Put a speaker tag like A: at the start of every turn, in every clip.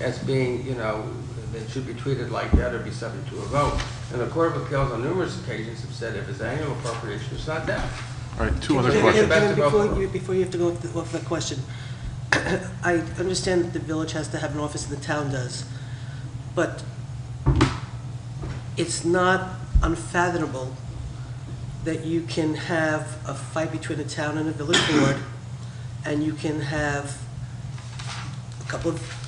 A: as being, you know, they should be treated like that or be subject to a vote. And the Court of Appeals on numerous occasions have said if it's annual appropriation, it's not done.
B: All right, two other
A: Can
C: Kevin,
A: we get
B: questions.
A: back
C: Kevin,
A: to
C: Before
A: Buffalo?
C: you, before you have to go off the- off that question, I understand that the village has to have an office, and the town does, but it's not unfathomable that you can have a fight between a town and a village board, and you can have a couple of,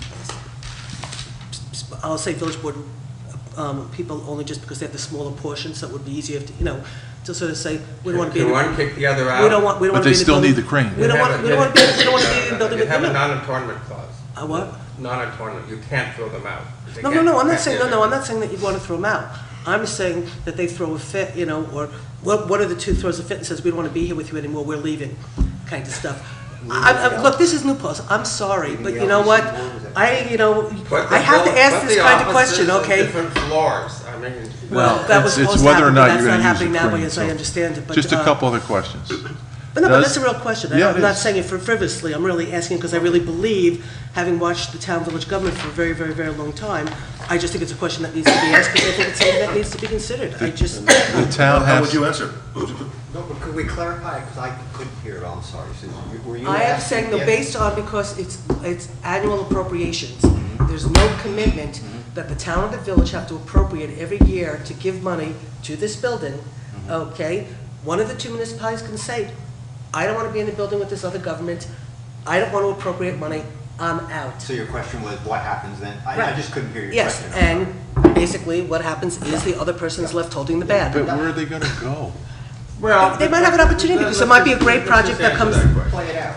C: I'll say village board um, people only just because they have the smaller portion, so it would be easier if, you know, to sort of say, we don't want to be in
A: Can
C: the
A: one kick the other out?
C: we don't want, we don't
B: But
C: want to
B: they
C: be
B: still
C: in the building.
B: need the crane.
C: We don't want, we don't want to be, we don't want to be in the building
A: You
C: with, no,
A: have a
C: no.
A: non-attornment clause.
C: A what?
A: Non-attornment, you can't throw them out. They
C: No, no,
A: can't-
C: no, I'm not
A: can't
C: saying,
A: be
C: no, no, I'm
A: there.
C: not saying that you want to throw them out. I'm saying that they throw a fit, you know, or what, one of the two throws a fit and says, we don't want to be here with you anymore, we're leaving, kind of stuff. I, I, look, this is New Paltz, I'm sorry, but you know what? I, you know,
A: Put the
C: I have to
A: bill-
C: ask
A: put
C: this
A: the
C: kind of
A: offices
C: question,
A: on
C: okay?
A: Different floors, I mean.
B: Well,
C: That was
B: it's- it's
C: supposed to
B: whether or
C: happen,
B: not
C: but that's
B: you're gonna use
C: not happening
B: the
C: that way,
B: crane,
C: as I
B: so-
C: understand it, but,
B: Just a
C: uh,
B: couple other questions.
C: But no, but
B: Does-
C: that's a real question. I-
B: Yeah, it
C: I'm not
B: is.
C: saying it for frivolously. I'm really asking because I really believe, having watched the town-village government for a very, very, very long time, I just think it's a question that needs to be asked because I think it's something that needs to be considered. I just,
B: The town
D: How would
B: has,
D: you answer?
E: No, but could we clarify, because I couldn't hear it, I'm sorry, Susan. You- Were you
C: I am
E: asking
C: saying the
E: if-
C: based on because it's, it's annual appropriations.
E: Mm-hmm.
C: There's no commitment that the town and the village have to appropriate every year to give money to this building,
E: Mm-hmm.
C: okay? One of the two municipalities can say, I don't want to be in the building with this other government. I don't want to appropriate money. I'm out.
E: So your question was, what happens then? I, I
C: Right.
E: just couldn't hear your
C: Yes,
E: question.
C: and basically, what happens is the other person's left holding the
B: but
C: bag.
B: where are they going to go?
A: Well.
C: They might have an opportunity, because it might be a great project that comes-
E: Play it out.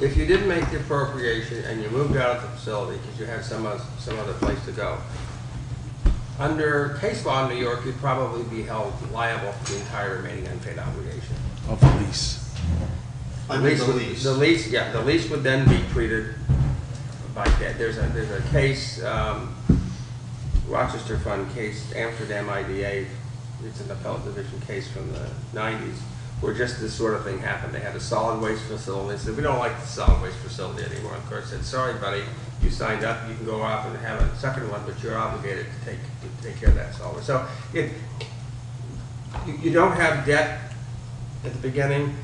A: If you didn't make the appropriation and you moved out of the facility because you had some, oth- some other place to go, under case law in New York, you'd probably be held liable for the entire remaining unpaid obligation.
B: Of the lease.
E: Under the
A: would-
E: lease.
A: The lease, yeah, the lease would then be treated like that. There's a, there's a case, um, Rochester Fund case, Amsterdam IDA, it's an appellate division case from the nineties, where just this sort of thing happened. They had a solid waste facility, they said, we don't like the solid waste facility anymore. And Court said, sorry, buddy, you signed up, you can go off and have a second one, but you're obligated to take, to take care of that solid. waste." So it, you, you don't have debt at the beginning,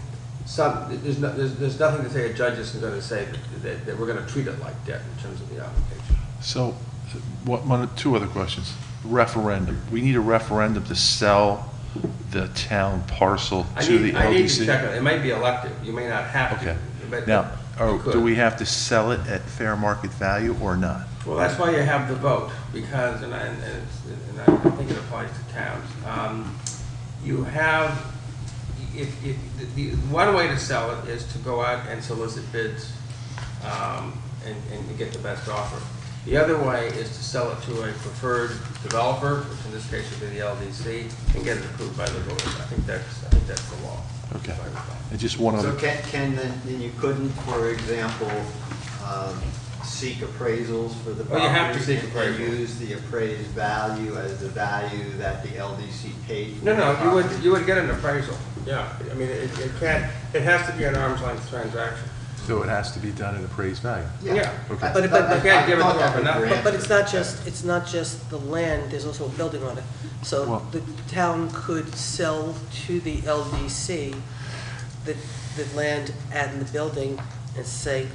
A: some, there's, no, there's, there's nothing to say a judge isn't gonna say that, that, that we're gonna treat it like debt in terms of the application.
B: So, what, one, two other questions. Referendum. We need a referendum to sell the town parcel
A: I
B: to the
A: need, I need to check
B: LDC?
A: on it, it might be elective, you may not have
B: Okay.
A: to, but.
B: Now,
A: you
B: are-
A: could.
B: do we have to sell it at fair market value or not?
A: Well, that's why you have the vote, because, and I, and it's- and I think it applies to towns, um, you have, if, if, the, the- one way to sell it is to go out and solicit bids, um, and, and get the best offer. The other way is to sell it to a preferred developer, which in this case would be the LDC, and get it approved by the voters. I think that's, I think that's the law.
B: Okay.
A: if I recall.
B: And just one
E: So
B: other,
E: can, can, then then you couldn't, for example, um, seek appraisals for the property?
A: Oh, you have to seek
E: and-
A: appraisal.
E: And use the appraised value as the value that the LDC paid for the
A: No, no, you would,
E: property?
A: you would get an appraisal, yeah. I mean, it, it can't, it has to be an arm's length transaction.
B: so it has to be done at appraised value?
A: Yeah.
B: Okay.
E: I
C: But- but-
E: thought-
A: You can't give it
E: I thought
A: to
E: that
A: them
E: would
A: enough.
E: grant
C: But it's not
E: it.
C: just, it's not just the land, there's also a building on it. So
B: Well-
C: the town could sell to the LDC the, the land and the building and say,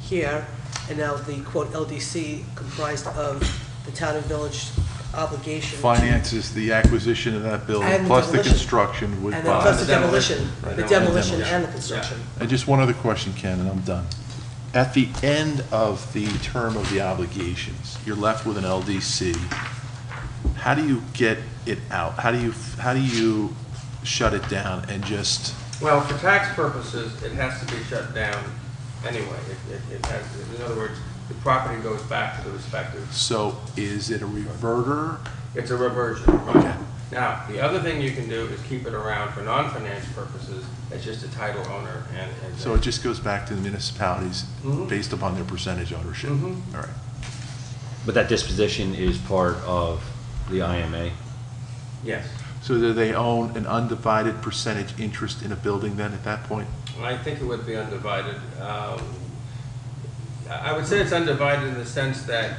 C: here, and now the quote LDC comprised of the town and village obligation. to-
B: Finances the acquisition of that building,
C: And
B: plus the
C: demolition.
B: construction would
C: And then
B: buy.
C: plus the
A: demolition.
C: demolition,
A: Right.
C: the
A: And
C: demolition
B: demolition.
C: and the construction.
B: And just one other question, Ken, and I'm done. At the end of the term of the obligations, you're left with an LDC. How do you get it out? How do you, how do you shut it down and just,
A: Well, for tax purposes, it has to be shut down anyway. It- It, it has, in other words, the property goes back to the respective,
B: so is it a reverter?
A: it's a reversion, right?
B: Okay.
A: Now, the other thing you can do is keep it around for non-finance purposes, it's just a title owner and. and-
B: So it just goes back to the municipalities
C: Mm-hmm.
A: Mhm.
B: based upon their percentage ownership?
A: Mhm.
B: All right.
F: But that disposition is part of the IMA?
A: Yes,
B: So do they own an undivided percentage interest in a building then at that point?
A: and I think it would be undivided. Um, I I would say it's undivided in the sense that